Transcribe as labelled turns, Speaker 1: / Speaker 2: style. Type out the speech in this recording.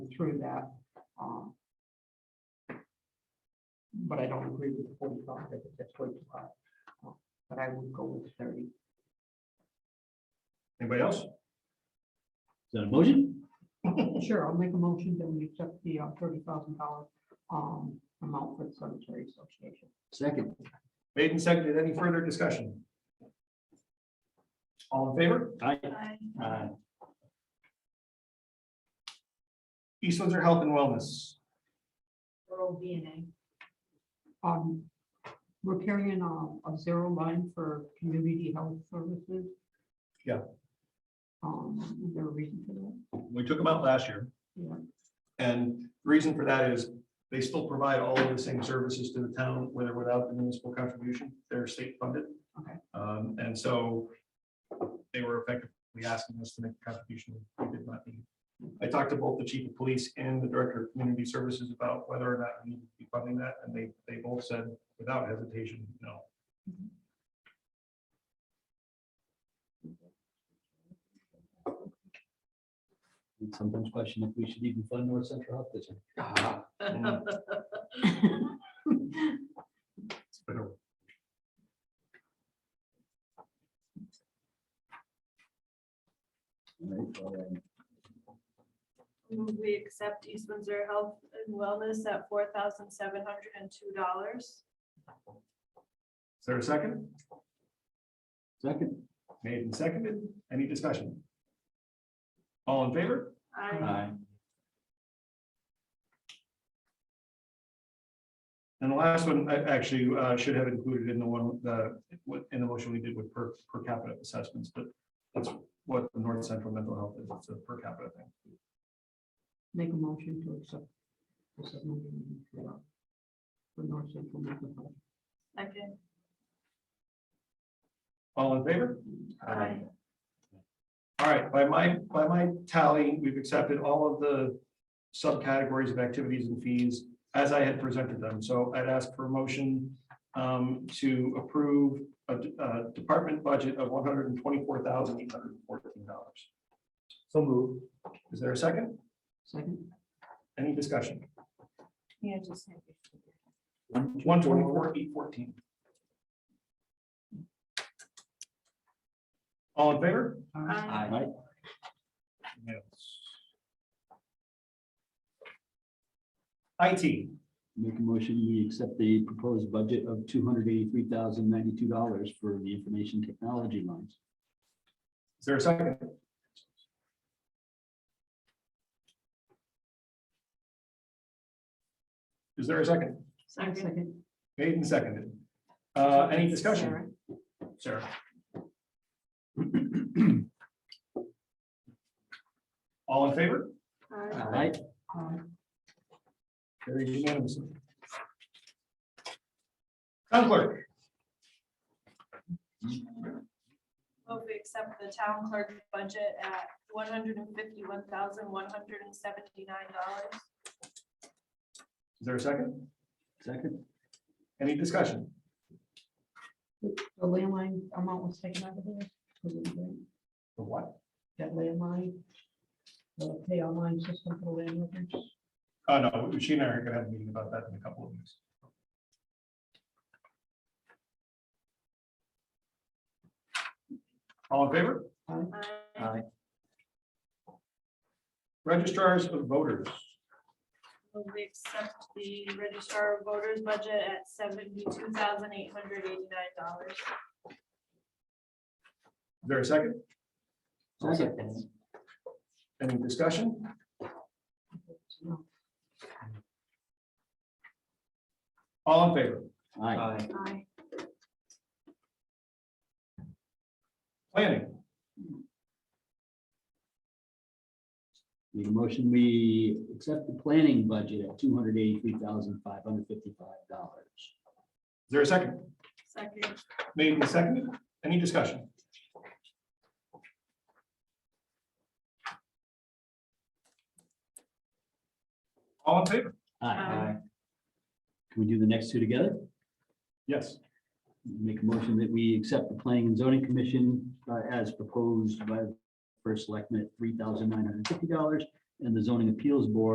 Speaker 1: through that. um, But I don't agree with the forty-five, I think that's way too high. Uh, But I would go with thirty.
Speaker 2: Anybody else?
Speaker 3: Is that a motion?
Speaker 1: Sure, I'll make a motion that we accept the uh, thirty thousand dollar um, amount for the cemetery association.
Speaker 3: Second.
Speaker 2: Made and seconded. Any further discussion? All in favor?
Speaker 3: Aye.
Speaker 2: Aye. East Windsor Health and Wellness.
Speaker 4: Rural DNA.
Speaker 1: Um, We're carrying a, a zero line for community health services.
Speaker 2: Yeah.
Speaker 1: Um, Is there a reason for that?
Speaker 2: We took them out last year.
Speaker 1: Yeah.
Speaker 2: And the reason for that is they still provide all of the same services to the town, whether without the municipal contribution, they're state funded.
Speaker 1: Okay.
Speaker 2: Um, and so they were effectively asking us to make a contribution we did not need. I talked to both the chief of police and the director of community services about whether or not we need to be funding that, and they, they both said without hesitation, no.
Speaker 3: We Sometimes question if we should even fund North Central Health District.
Speaker 2: Mm. It's been a
Speaker 3: Alright, well, um,
Speaker 4: Move we accept East Windsor Health and Wellness at four thousand seven hundred and two dollars.
Speaker 2: Is there a second?
Speaker 3: Second.
Speaker 2: Made and seconded. Any discussion? All in favor?
Speaker 4: I
Speaker 2: And the last one, I actually uh, should have included in the one, the, what- in the motion we did with per, per capita assessments, but that's what the North Central Mental Health is, it's a per capita thing.
Speaker 1: Make a motion to accept. the submarine, uh, For North Central Mental Health.
Speaker 4: Second.
Speaker 2: All in favor?
Speaker 4: Aye.
Speaker 2: All right, by my, by my tally, we've accepted all of the subcategories of activities and fees as I had presented them. So I'd ask for a motion um, to approve a, d- a department budget of one hundred and twenty-four thousand eight hundred and fourteen dollars. So moved. Is there a second?
Speaker 1: Second,
Speaker 2: Any discussion?
Speaker 4: Yeah, just. have it.
Speaker 2: One twenty-four eight fourteen. All in favor?
Speaker 4: Aye.
Speaker 3: Aye.
Speaker 2: Yes. IT,
Speaker 3: Make a motion, we accept the proposed budget of two hundred eighty-three thousand ninety-two dollars for the information technology lines.
Speaker 2: is there a second? Is there a second?
Speaker 4: Second.
Speaker 1: second.
Speaker 2: Made and seconded. Uh, any discussion, Sarah? All in favor?
Speaker 4: Aye.
Speaker 3: Aye.
Speaker 1: Aye.
Speaker 2: Carried unanimously. Town clerk,
Speaker 4: Move we accept the town clerk budget at one hundred and fifty-one thousand one hundred and seventy-nine dollars.
Speaker 2: is there a second?
Speaker 3: Second.
Speaker 2: Any discussion?
Speaker 1: The landline amount was taken out of there. was it, right?
Speaker 2: The what?
Speaker 1: That landline. The pay online system for land records.
Speaker 2: Oh, no, she and I are gonna have a meeting about that in a couple of weeks. All in favor?
Speaker 1: Aye.
Speaker 4: Aye.
Speaker 2: Registrars of voters,
Speaker 4: Move we accept the registrar of voters budget at seventy-two thousand eight hundred eighty-nine dollars.
Speaker 2: Is there a second,
Speaker 3: Second.
Speaker 2: any discussion?
Speaker 1: No.
Speaker 2: All in favor?
Speaker 3: Aye.
Speaker 4: Aye.
Speaker 2: Planning,
Speaker 3: Make a motion, we accept the planning budget at two hundred eighty-three thousand five hundred fifty-five dollars.
Speaker 2: is there a second?
Speaker 4: Second.
Speaker 2: Made and seconded, any discussion? All in favor?
Speaker 4: Aye.
Speaker 3: Can we do the next two together?
Speaker 2: Yes.
Speaker 3: Make a motion that we accept the planning and zoning commission uh, as proposed by the first selectman at three thousand nine hundred fifty dollars and the zoning appeals board